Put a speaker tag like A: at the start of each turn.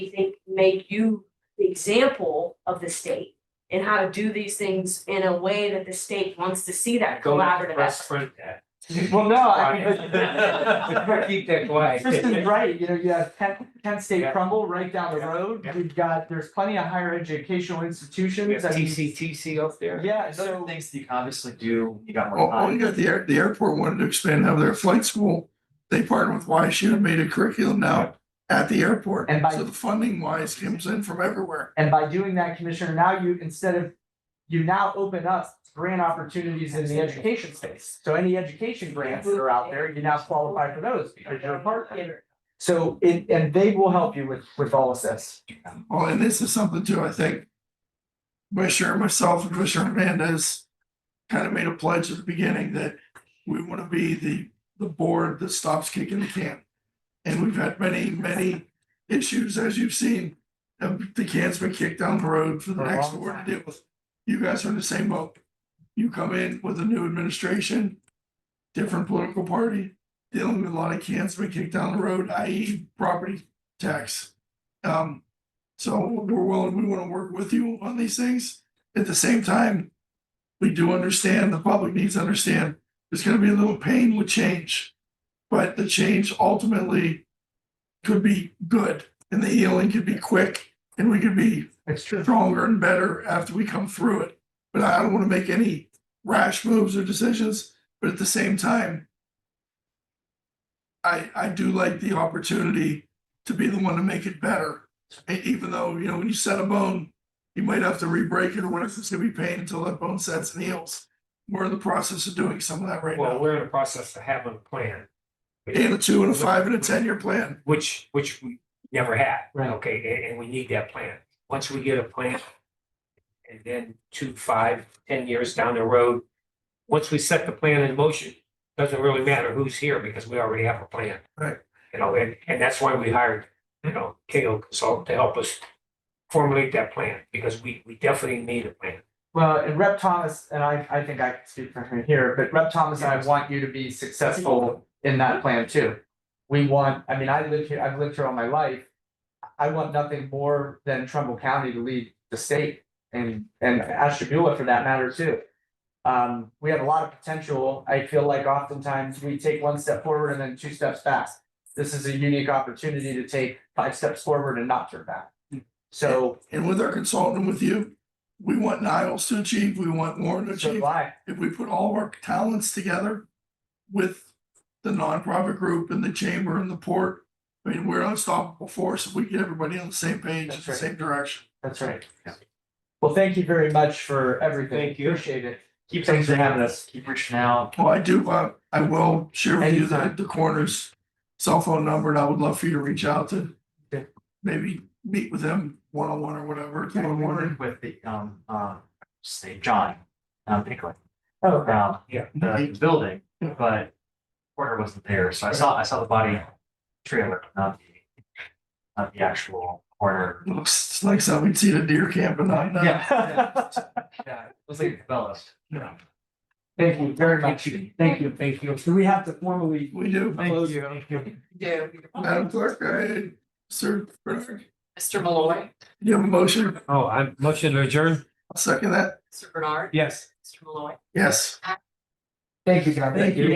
A: we think make you the example of the state and how to do these things in a way that the state wants to see that
B: Go with the
A: collaborative
B: press
A: effort.
B: print that.
C: Well, no, I mean, but-
B: Right. Keep that quiet.
C: Tristan's right, you know, you have Penn, Penn State
B: Yeah.
C: crumble right down the
B: Yeah.
C: road,
B: Yeah.
C: we've got, there's plenty of higher educational
B: We have
C: institutions. I mean,
B: TCTC up there.
C: Yeah,
D: There's other
C: so,
D: things you can obviously do, you got
E: Oh,
D: more
E: oh, you
D: time.
E: got the air, the airport wanted to expand, have their flight school. They partnered with YSU and made a curriculum now at the airport.
C: And by-
E: So the funding wise comes in from everywhere.
C: and by doing that, Commissioner, now you, instead of, you now open up grant opportunities in the education space. So any education grants that are out there, you now qualify for those because you're a partner. So, and, and they will help you with, with all of this.
E: Well, Oh, and this is something too, I think. Commissioner, myself and Commissioner Hernandez kind of made a pledge at the beginning that we want to be the, the board that stops kicking the can. And we've had many, many issues, as you've seen. Uh, The can's been kicked down the road for the
C: For a
E: next
C: long
E: board
C: time.
E: to deal with. You guys are in the same boat. You come in with a new administration, different political party, dealing with a lot of cans been kicked down the road, i.e. property tax. Um, so we're willing, we want to work with you on these things. At the same time, we do understand, the public needs to understand, there's gonna be a little pain with change. But the change ultimately could be good and the healing could be quick and we could be
C: It's true.
E: stronger and better after we come through it. But I don't want to make any rash moves or decisions, but at the same time, I, I do like the opportunity to be the one to make it better. E- even though, you know, when you set a bone, you might have to re-break it or whatever, it's gonna be pain until that bone sets and heals. We're in the process of doing some of that right
B: Well,
E: now.
B: we're in the process of having a plan.
E: And a two and a five and a ten-year plan.
B: Which, which we never had.
C: Right.
B: Okay, and, and we need that plan. Once we get a plan. And then two, five, ten years down the road, once we set the plan in motion, doesn't really matter who's here because we already have a plan.
E: Right.
B: You know, and, and that's why we hired, you know, KO Consultant to help us formulate that plan because we, we definitely need a plan.
C: Well, and Rep Thomas, and I, I think I can speak for him here, but Rep Thomas, and I want you to be successful in that plan too. We want, I mean, I live here, I've lived here all my life. I want nothing more than Trumbull County to lead the state and, and Ashtabula for that matter too. Um, we have a lot of potential. I feel like oftentimes we take one step forward and then two steps back. This is a unique opportunity to take five steps forward and not turn back. So,
E: And with our consultant with you, we want Niles to achieve, we want Warren to
C: so
E: achieve.
C: do I.
E: if we put all of our talents together with the nonprofit group and the chamber and the port, I mean, we're unstoppable force if we get everybody on the same page,
C: That's
E: the
C: right.
E: same direction.
C: That's right. Well, thank you very much for everything.
B: Thank you.
C: Appreciate it.
D: Keep things for having us, keep reaching out.
E: Well, I do, uh, I will share with you the,
C: Anytime.
E: the coroner's cell phone number and I would love for you to reach out to
C: Okay.
E: maybe meet with them one-on-one or whatever.
D: We
E: one-on-one.
D: worked With the, um, uh, say, John, um, Pickling,
C: Oh,
D: um,
B: Yeah.
D: the building,
E: Yeah.
D: but Porter wasn't there, so I saw, I saw the body trailer, not the, not the actual Porter.
E: Looks like something you'd see at a deer camp and not, uh,
D: Yeah, yeah, it was like the bellest.
E: Yeah.
C: Thank you very much. Thank you. Thank you. So we have to formally.
E: we do.
C: close.
F: Yeah.
E: Madam Clerk, I, Sir, Bernard,
F: Mr. Malloy,
E: you have a motion?
B: Oh, I'm motion to adjourn?
E: I'll second that.
F: Mr. Bernard,
B: Yes.
F: Mr. Malloy.
E: Yes.
C: Thank you, guys.
B: Thank you.